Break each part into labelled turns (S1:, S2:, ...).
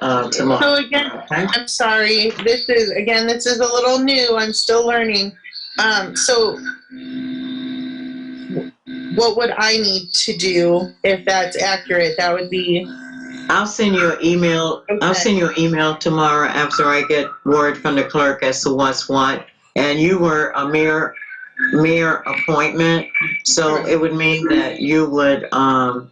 S1: uh, tomorrow.
S2: So again,
S1: Okay?
S2: I'm sorry, this is, again, this is a little new, I'm still learning. Um, so what would I need to do if that's accurate? That would be,
S1: I'll send you an email, I'll
S2: Okay.
S1: send you an email tomorrow after I get word from the clerk as to what's what. And you were a mere, mere appointment, so it would mean that you would, um,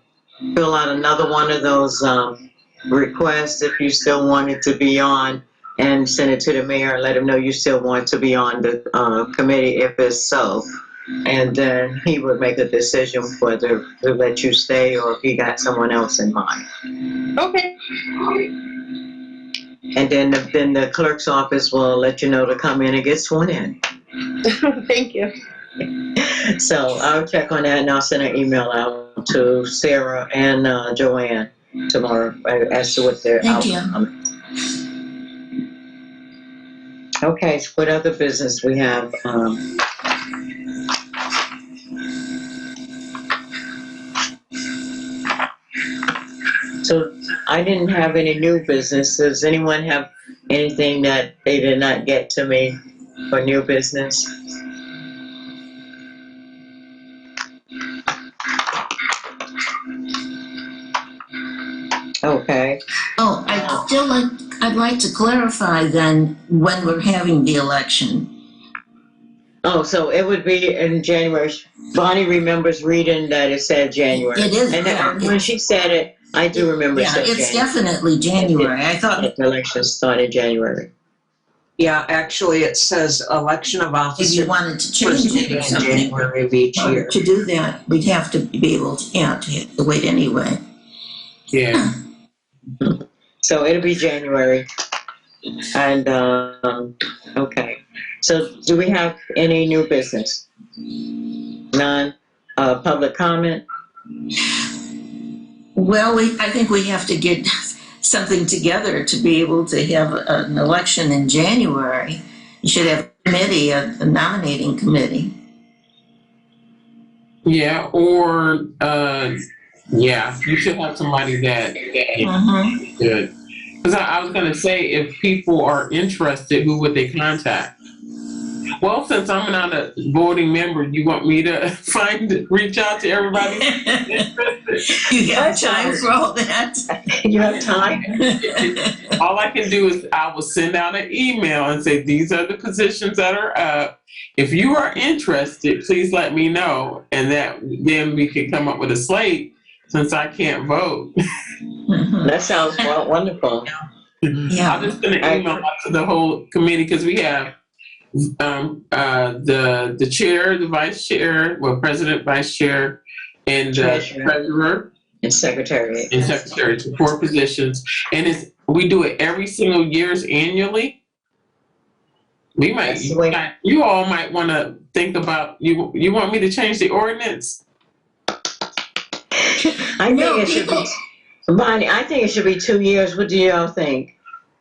S1: fill out another one of those, um, requests if you still wanted to be on and send it to the mayor and let him know you still want to be on the, uh, committee if it's so. And then he would make a decision whether to let you stay or if he got someone else in mind.
S2: okay,
S1: And then, the- then the clerk's office will let you know to come in and get sworn in.
S2: thank you.
S1: So I'll check on that and I'll send an email out to Sarah and uh, Joanne tomorrow uh, as to what their
S3: Thank you.
S1: outcome. Okay, so what other business we have? Um, so I didn't have any new business. Does anyone have anything that they did not get to me for new business? Okay.
S3: Oh, I'd still like, I'd like to clarify then when we're having the election.
S1: Oh, so it would be in January. Bonnie remembers reading that it said January.
S3: It is,
S1: And then
S3: yeah.
S1: when she said it, I do remember
S3: Yeah,
S1: it said
S3: it's
S1: January.
S3: definitely January. I thought,
S1: The election started January.
S4: Yeah, actually, it says election of
S3: if you
S4: officer
S3: wanted to
S4: first
S3: change it
S4: meeting
S3: or
S4: in
S3: something.
S4: January of each year.
S3: To do that, we'd have to be able to, yeah, to have to wait anyway.
S5: Yeah,
S1: So it'll be January. And, um, okay. So do we have any new business? None, uh, public comment?
S3: Well, we, I think we have to get something together to be able to have an election in January. You should have a committee, a a nominating committee.
S5: yeah, or, uh, yeah, you should have somebody that, that
S3: Mhm.
S5: is good. Cause I, I was gonna say, if people are interested, who would they contact? Well, since I'm not a voting member, you want me to find, reach out to everybody?
S3: You got
S1: That's
S3: time
S1: hard.
S3: for all that?
S1: You have time?
S5: All I can do is I will send out an email and say, these are the positions that are up. If you are interested, please let me know. And that, then we could come up with a slate since I can't vote.
S3: Mhm.
S1: That sounds wo- wonderful.
S5: I'm
S3: Yeah,
S5: just gonna email out to the whole committee because we have um, uh, the, the chair, the vice chair, well, president, vice chair, and the
S1: Treasurer.
S5: treasurer.
S1: And secretary.
S5: and secretary to four positions. And it's, we do it every single years annually. We might,
S1: That's the way-
S5: you all might want to think about, you, you want me to change the ordinance?
S1: I think
S3: No,
S1: it should
S3: people-
S1: be, Bonnie, I think it should be two years. What do y'all think,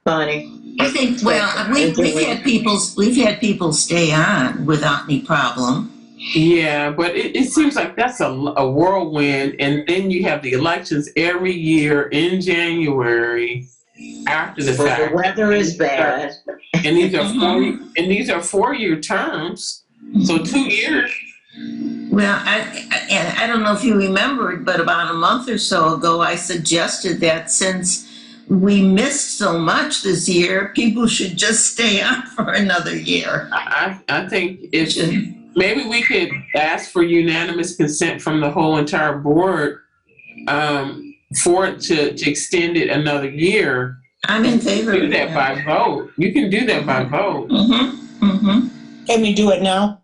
S1: Bonnie?
S3: I think, well, we, we've had people, we've had people stay on without any problem.
S5: Yeah, but it, it seems like that's a, a whirlwind. And then you have the elections every year in January after the
S1: Well, the
S5: fact.
S1: weather is bad.
S5: And these are four,
S3: Mhm.
S5: and these are four-year terms. So two years,
S3: Well, I, I- and I don't know if you remembered, but about a month or so ago, I suggested that since we missed so much this year, people should just stay on for another year.
S5: I, I I think it's, Maybe we could ask for unanimous consent from the whole entire board um, for it to, to extend it another year.
S3: I'm in favor
S5: Do
S3: of
S5: that
S3: that.
S5: by vote. You can do that by vote.
S3: Mm-hmm, mm-hmm.
S6: Can you do it now?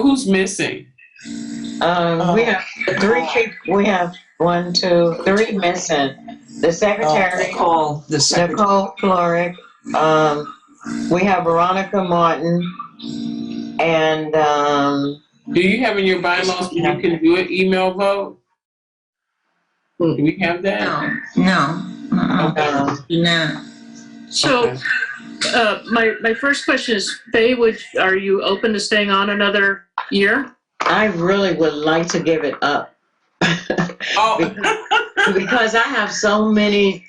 S5: Who's missing?
S1: Um, we have three, pe- we have one, two, three missing. The secretary,
S4: Call the secretary.
S1: Nicole Floric, um, we have Veronica Martin, and, um,
S5: Do you have in your bylaws you can do an email vote? Do we have that?
S3: No, no, uh-uh,
S1: um,
S3: no.
S7: So,
S5: Okay.
S7: uh, my, my first question is, Faye, would, are you open to staying on another year?
S1: I really would like to give it up.
S5: Oh,
S1: Because I have so many